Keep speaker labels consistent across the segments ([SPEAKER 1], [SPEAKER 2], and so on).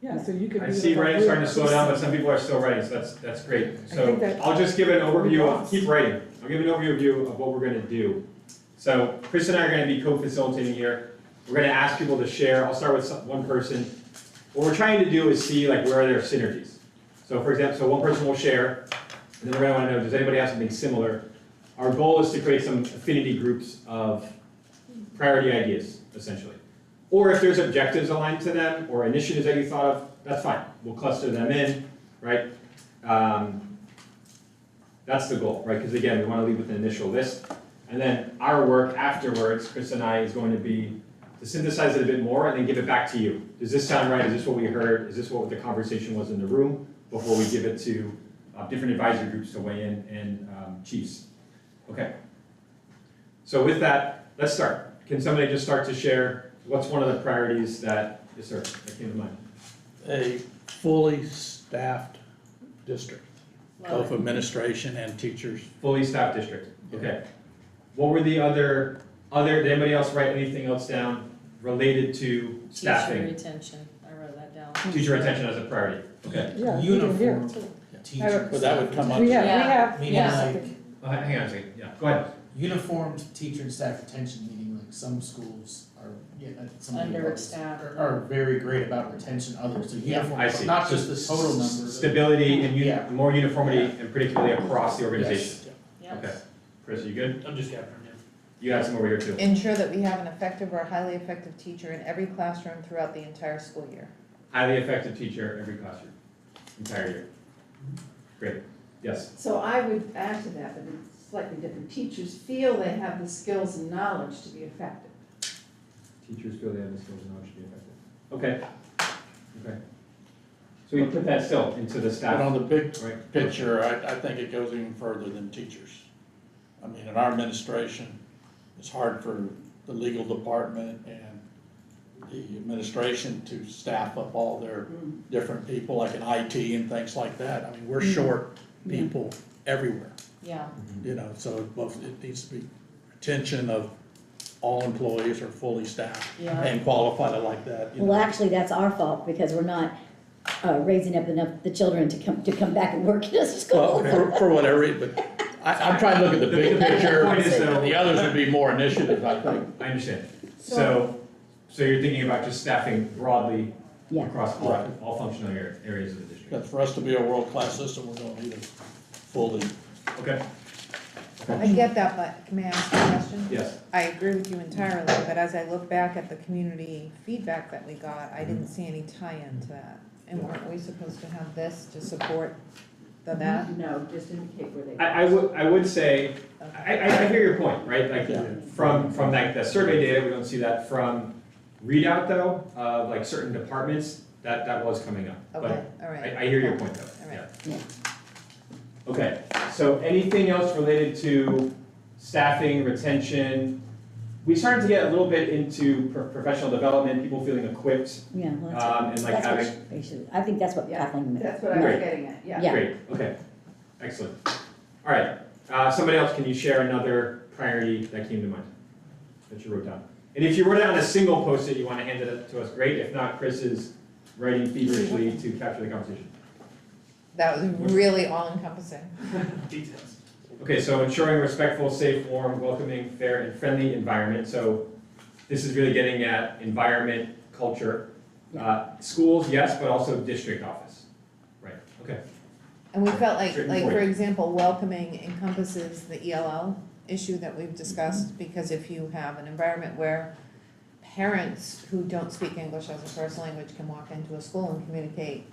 [SPEAKER 1] Yeah, so you could.
[SPEAKER 2] I
[SPEAKER 1] do
[SPEAKER 2] see
[SPEAKER 1] it
[SPEAKER 2] writing
[SPEAKER 1] like
[SPEAKER 2] starting to
[SPEAKER 1] this.
[SPEAKER 2] slow down, but some people are still writing, so that's, that's great. So
[SPEAKER 1] think that-
[SPEAKER 2] I'll just give an overview, of keep writing, I'll give an overview of what we're gonna do. So Chris and I are gonna be co-facilitating here, we're gonna ask people to share, I'll start with some- one person. What we're trying to do is see like where are their synergies. So for example, so one person will share, and then we're gonna wanna know, does anybody have something similar? Our goal is to create some affinity groups of priority ideas, essentially. Or if there's objectives aligned to them or initiatives that you thought of, that's fine. We'll cluster them in, right? Um, that's the goal, right? Because again, we want to leave with an initial list. And then our work afterwards, Chris and I, is going to be to synthesize it a bit more and then give it back to you. Does this sound right? Is this what we heard? Is this what the conversation was in the room before we give it to uh, different advisory groups to weigh in and um, chiefs? Okay. So with that, let's start. Can somebody just start to share what's one of the priorities that, yes, sir, that came to mind?
[SPEAKER 3] a fully staffed district, both
[SPEAKER 4] Love it.
[SPEAKER 3] administration and teachers.
[SPEAKER 2] Fully staffed district, okay. What were the other, other, did anybody else write anything else down related to
[SPEAKER 4] Teacher
[SPEAKER 2] staffing?
[SPEAKER 4] retention, I wrote that down.
[SPEAKER 2] Teacher retention as a priority, okay.
[SPEAKER 1] Yeah, even here.
[SPEAKER 5] Uniform
[SPEAKER 1] But
[SPEAKER 5] teachers.
[SPEAKER 3] But that would come up,
[SPEAKER 1] We have,
[SPEAKER 4] Yeah.
[SPEAKER 1] we have.
[SPEAKER 5] Meaning
[SPEAKER 4] Yeah.
[SPEAKER 5] like,
[SPEAKER 2] Uh, Hang on a second, yeah, go ahead.
[SPEAKER 5] uniformed teacher and staff retention, meaning like some schools are, yeah, uh, some. schools
[SPEAKER 4] Understaffed.
[SPEAKER 5] Are, are very great about retention, others, so
[SPEAKER 4] Yeah.
[SPEAKER 5] uniform,
[SPEAKER 2] I see.
[SPEAKER 5] not just the total
[SPEAKER 2] S-
[SPEAKER 5] number.
[SPEAKER 2] Stability and uni-
[SPEAKER 5] Yeah.
[SPEAKER 2] more uniformity and predictability across the organization.
[SPEAKER 4] Yeah.
[SPEAKER 2] Okay. Chris, are you good?
[SPEAKER 6] I'm just gathering now.
[SPEAKER 2] You got some over here too.
[SPEAKER 7] Ensure that we have an effective or highly effective teacher in every classroom throughout the entire school year.
[SPEAKER 2] Highly effective teacher every classroom, entire year. Great, yes,
[SPEAKER 8] So I would add to that, that it's slightly different. Teachers feel they have the skills and knowledge to be effective.
[SPEAKER 2] teachers feel they have the skills and knowledge to be effective. Okay, okay. So we put that still into the
[SPEAKER 3] but on
[SPEAKER 2] staff,
[SPEAKER 3] the big
[SPEAKER 2] right?
[SPEAKER 3] picture, I, I think it goes even further than teachers. I mean, in our administration, it's hard for the legal department and the administration to staff up all their different people, like in IT and things like that. I mean, we're short people everywhere.
[SPEAKER 4] Yeah,
[SPEAKER 3] You know, so it both, it needs to be retention of all employees are fully staffed
[SPEAKER 4] Yeah.
[SPEAKER 3] and qualified I like that, you know.
[SPEAKER 9] Well, actually, that's our fault because we're not uh, raising up enough, the children to come, to come back and work in a
[SPEAKER 3] Well,
[SPEAKER 9] school.
[SPEAKER 3] for, for whatever, it- but I, I'm trying to look at the
[SPEAKER 2] The
[SPEAKER 3] big
[SPEAKER 2] big
[SPEAKER 3] picture.
[SPEAKER 2] point is though-
[SPEAKER 3] The others would be more initiative, I think.
[SPEAKER 2] I understand.
[SPEAKER 8] So-
[SPEAKER 2] So, so you're thinking about just staffing broadly
[SPEAKER 9] Yeah.
[SPEAKER 2] across all,
[SPEAKER 3] Right.
[SPEAKER 2] all functional ar- areas of the district?
[SPEAKER 3] But for us to be a world-class system, we're gonna need a fully,
[SPEAKER 2] Okay,
[SPEAKER 7] I get that, but may I ask a question?
[SPEAKER 2] yes,
[SPEAKER 7] I agree with you entirely, but as I look back at the community feedback that we got, I didn't see any tie-in to that. And weren't we supposed to have this to support the that?
[SPEAKER 8] No, just indicate where they.
[SPEAKER 2] I, I would, I would say, I, I, I hear your point, right? Like, from, from like the survey data, we don't see that from readout though, of like certain departments, that, that was coming up. Mm-hmm. But
[SPEAKER 7] Okay, all right.
[SPEAKER 2] I, I hear your point though, yeah.
[SPEAKER 7] Alright.
[SPEAKER 9] Yeah.
[SPEAKER 2] Okay, so anything else related to staffing, retention? We started to get a little bit into pro- professional development, people feeling equipped,
[SPEAKER 9] Yeah, well, that's,
[SPEAKER 2] um, and like
[SPEAKER 9] that's
[SPEAKER 2] having.
[SPEAKER 9] what they should, I think that's what
[SPEAKER 8] Yeah,
[SPEAKER 9] Kathleen meant.
[SPEAKER 8] That's what I was
[SPEAKER 2] Great.
[SPEAKER 8] getting at, yeah.
[SPEAKER 9] Yeah.
[SPEAKER 2] Great, okay, excellent. All right, uh, somebody else, can you share another priority that came to mind that you wrote down? And if you wrote it on a single post-it, you want to hand it to us, great. If not, Chris is writing feverishly to capture the conversation.
[SPEAKER 7] That was really all-encompassing.
[SPEAKER 6] Details.
[SPEAKER 2] Okay, so ensuring respectful, safe, warm, welcoming, fair, and friendly environment, so this is really getting at environment, culture. Uh, Schools, yes, but also district office, right, okay,
[SPEAKER 7] And we felt like,
[SPEAKER 2] Certain
[SPEAKER 7] like, for
[SPEAKER 2] point.
[SPEAKER 7] example, welcoming encompasses the ELL issue that we've discussed, because if you have an environment where parents who don't speak English as a first language can walk into a school and communicate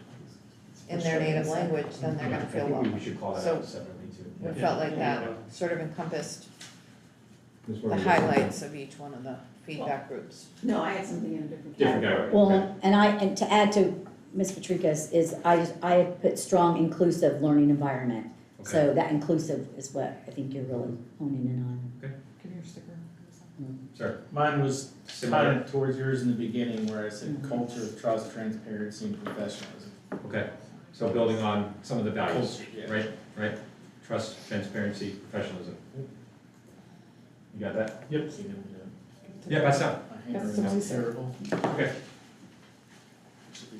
[SPEAKER 7] in their native language, then they're gonna feel
[SPEAKER 2] Mm-hmm. I think we-
[SPEAKER 7] welcome.
[SPEAKER 2] we should call that
[SPEAKER 7] So-
[SPEAKER 2] out separately too.
[SPEAKER 7] We
[SPEAKER 2] Yeah.
[SPEAKER 7] felt like
[SPEAKER 6] Yeah.
[SPEAKER 7] that sort of encompassed
[SPEAKER 2] That's what
[SPEAKER 7] the
[SPEAKER 2] we're doing.
[SPEAKER 7] highlights of each one of the feedback groups.
[SPEAKER 8] No, I had something in a different
[SPEAKER 2] Different category.
[SPEAKER 8] category.
[SPEAKER 2] okay.
[SPEAKER 9] Well, and I, and to add to Ms. Patrika's is I, just- I had put strong inclusive learning environment. So that inclusive is what I think you're really honing in on.
[SPEAKER 7] Give me your sticker.
[SPEAKER 2] Sorry.
[SPEAKER 5] Mine was
[SPEAKER 2] Similar.
[SPEAKER 5] kind of towards yours in the beginning where I said culture of trust, transparency, and professionalism.
[SPEAKER 2] Okay. So building on some of the values,
[SPEAKER 5] Culture, yeah.
[SPEAKER 2] right? Right. Trust, transparency, professionalism. You got that?
[SPEAKER 5] Yep.
[SPEAKER 2] Yeah, that's up.
[SPEAKER 5] My handwriting's
[SPEAKER 8] That's amazing.
[SPEAKER 5] terrible.
[SPEAKER 2] Okay.